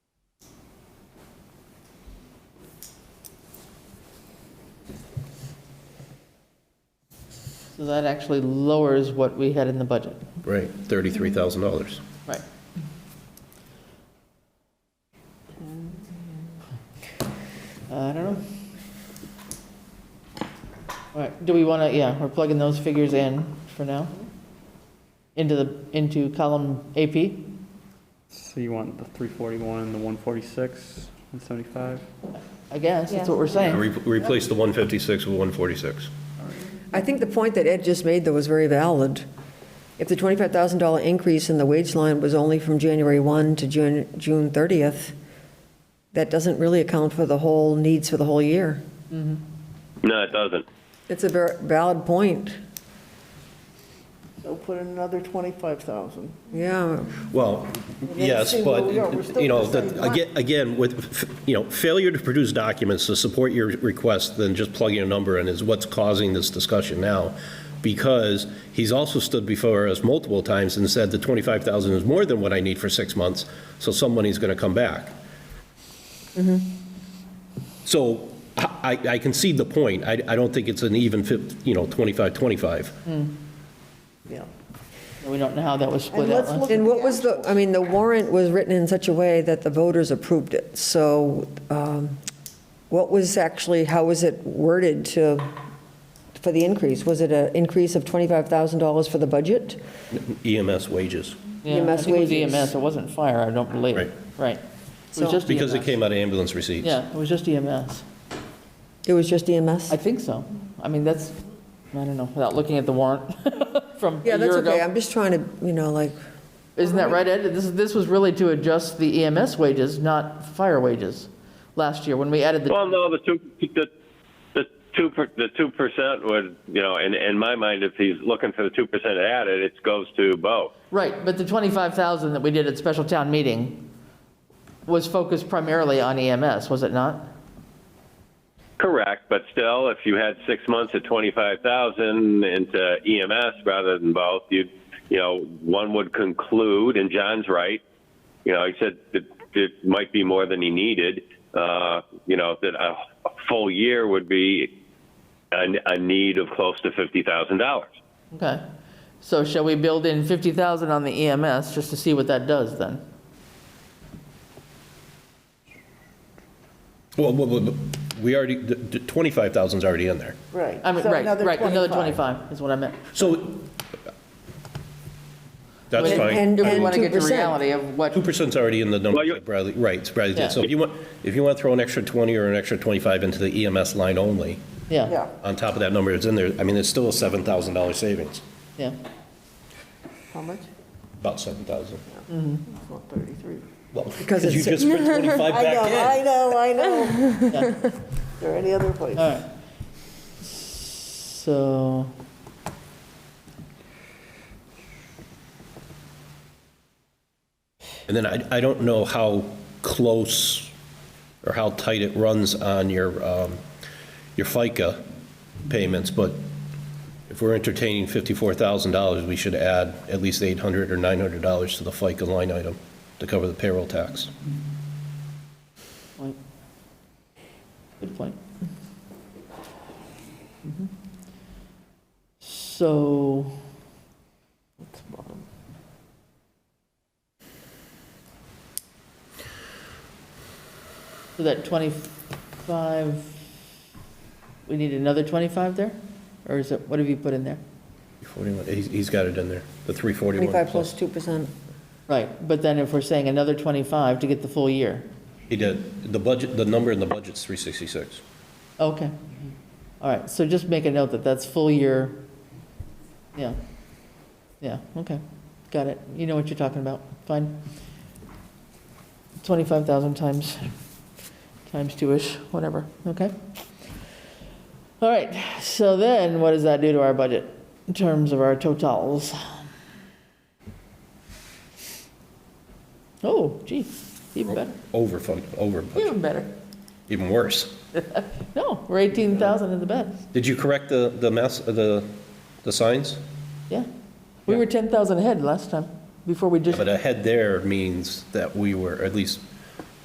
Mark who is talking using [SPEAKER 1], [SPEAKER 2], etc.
[SPEAKER 1] So that actually lowers what we had in the budget.
[SPEAKER 2] Right, thirty-three thousand dollars.
[SPEAKER 1] Right. Uh, I don't know. All right, do we want to, yeah, we're plugging those figures in for now? Into the, into column AP?
[SPEAKER 3] So you want the 341, the 146, 175?
[SPEAKER 1] I guess, that's what
[SPEAKER 4] Yeah.
[SPEAKER 1] we're saying.
[SPEAKER 2] Replace the one fifty-six with one forty-six.
[SPEAKER 5] I think the point that Ed just made, though, was very valid. If the $25,000 increase in the wage line was only from January 1 to June June 30th, that doesn't really account for the whole needs for the whole year.
[SPEAKER 6] No, it doesn't.
[SPEAKER 5] It's a ver- valid point,
[SPEAKER 7] So put in another 25,000.
[SPEAKER 5] yeah.
[SPEAKER 2] Well, yes,
[SPEAKER 7] see where
[SPEAKER 2] but,
[SPEAKER 7] we are. We're still
[SPEAKER 2] you know,
[SPEAKER 7] the same
[SPEAKER 2] the- again, again, with, you know, failure to produce documents to support your request than just plugging a number in is what's causing this discussion now, because he's also stood before us multiple times and said the 25,000 is more than what I need for six months, so some money's going to come back.
[SPEAKER 7] Mm-hmm.
[SPEAKER 2] So I, I- I concede the point. I, I don't think it's an even, fif- you know, 25, 25.
[SPEAKER 7] Yeah.
[SPEAKER 1] We don't know how that was split
[SPEAKER 7] And
[SPEAKER 1] out.
[SPEAKER 7] let's
[SPEAKER 1] last-
[SPEAKER 7] look-
[SPEAKER 5] And what was the, I mean, the warrant was written in such a way that the voters approved it, so um, what was actually, how was it worded to, for the increase? Was it an increase of $25,000 for the budget?
[SPEAKER 7] Mm.
[SPEAKER 2] EMS E wages,
[SPEAKER 1] Yeah, I
[SPEAKER 7] E
[SPEAKER 5] EMS
[SPEAKER 1] think it was
[SPEAKER 5] wages.
[SPEAKER 1] EMS, it wasn't fire, I don't believe.
[SPEAKER 2] Right.
[SPEAKER 1] Right. It was
[SPEAKER 5] So-
[SPEAKER 1] just
[SPEAKER 7] E
[SPEAKER 2] because it
[SPEAKER 1] EMS.
[SPEAKER 2] came out of ambulance receipts.
[SPEAKER 1] Yeah, it was just EMS.
[SPEAKER 5] It was just E EMS?
[SPEAKER 1] I think so. I mean, that's, I don't know, without looking at the warrant from a
[SPEAKER 5] Yeah, that's
[SPEAKER 1] year
[SPEAKER 5] okay,
[SPEAKER 1] ago.
[SPEAKER 5] I'm just trying to, you know, like,
[SPEAKER 1] Isn't that right, Ed? This, this was really to adjust the EMS wages, not fire wages, last year, when we added the,
[SPEAKER 6] Well, no, the two, the, the two, per- the two percent would, you know, in, in my mind, if he's looking for the two percent added, it goes to Bo.
[SPEAKER 1] right, but the 25,000 that we did at special town meeting was focused primarily on EMS, was it not?
[SPEAKER 6] Correct, but still, if you had six months at twenty-five thousand into EMS rather than both, you, you know, one would conclude, and John's right. You know, he said that it might be more than he needed. Uh, you know, that a, a full year would be a, a need of close to fifty thousand dollars.
[SPEAKER 1] Okay. So shall we build in 50,000 on the EMS, just to see what that does then?
[SPEAKER 2] Well, well, well, we already, the- the 25,000's already in there.
[SPEAKER 7] Right.
[SPEAKER 1] I mean,
[SPEAKER 7] So
[SPEAKER 1] right, right, another 25 is what I meant.
[SPEAKER 2] So that's
[SPEAKER 1] And-
[SPEAKER 2] fine.
[SPEAKER 5] and-
[SPEAKER 1] If we want to get to
[SPEAKER 5] 2%.
[SPEAKER 1] reality of what,
[SPEAKER 2] 2%'s already in the number,
[SPEAKER 6] Well, you-
[SPEAKER 2] that Bradley, right, it's Bradley
[SPEAKER 1] Yeah.
[SPEAKER 2] did. So if you want, if you want to throw an extra 20 or an extra 25 into the EMS line only,
[SPEAKER 1] yeah,
[SPEAKER 7] Yeah.
[SPEAKER 2] on top of that number that's in there, I mean, it's still a $7,000 savings,
[SPEAKER 1] yeah.
[SPEAKER 7] How much?
[SPEAKER 2] about 7,000.
[SPEAKER 7] It's not 33.
[SPEAKER 2] Well,
[SPEAKER 5] Because
[SPEAKER 2] you
[SPEAKER 5] it's-
[SPEAKER 2] just put 25
[SPEAKER 7] I know,
[SPEAKER 2] back
[SPEAKER 7] I know, I know. Is there any other place?
[SPEAKER 1] All right. So.
[SPEAKER 2] in. And then I, I don't know how close or how tight it runs on your, um, your FICA payments, but if we're entertaining $54,000, we should add at least $800 or $900 to the FICA line item to cover the payroll tax.
[SPEAKER 1] Point. Good point. Mhm. So,
[SPEAKER 7] It's bottom.
[SPEAKER 1] so that 25, we need another 25 there? Or is it, what have you put in there?
[SPEAKER 2] 41, he's, he's got it in there, the 341.
[SPEAKER 5] 25 plus 2%.
[SPEAKER 1] Right, but then if we're saying another 25 to get the full year,
[SPEAKER 2] He did. The budget, the number in the budget's 366.
[SPEAKER 1] okay. All right, so just make a note that that's full year, yeah, yeah, okay, got it. You know what you're talking about, fine. 25,000 times, times two-ish, whatever, okay? All right, so then what does that do to our budget in terms of our totals? Oh, gee, even better,
[SPEAKER 2] Over, fun- over, budget,
[SPEAKER 1] even better.
[SPEAKER 2] even worse.
[SPEAKER 1] No, we're 18,000 in the bed,
[SPEAKER 2] Did you correct the, the mass, the, the signs?
[SPEAKER 1] yeah. We were 10,000 ahead last time, before we just,
[SPEAKER 2] But a head there means that we were, at least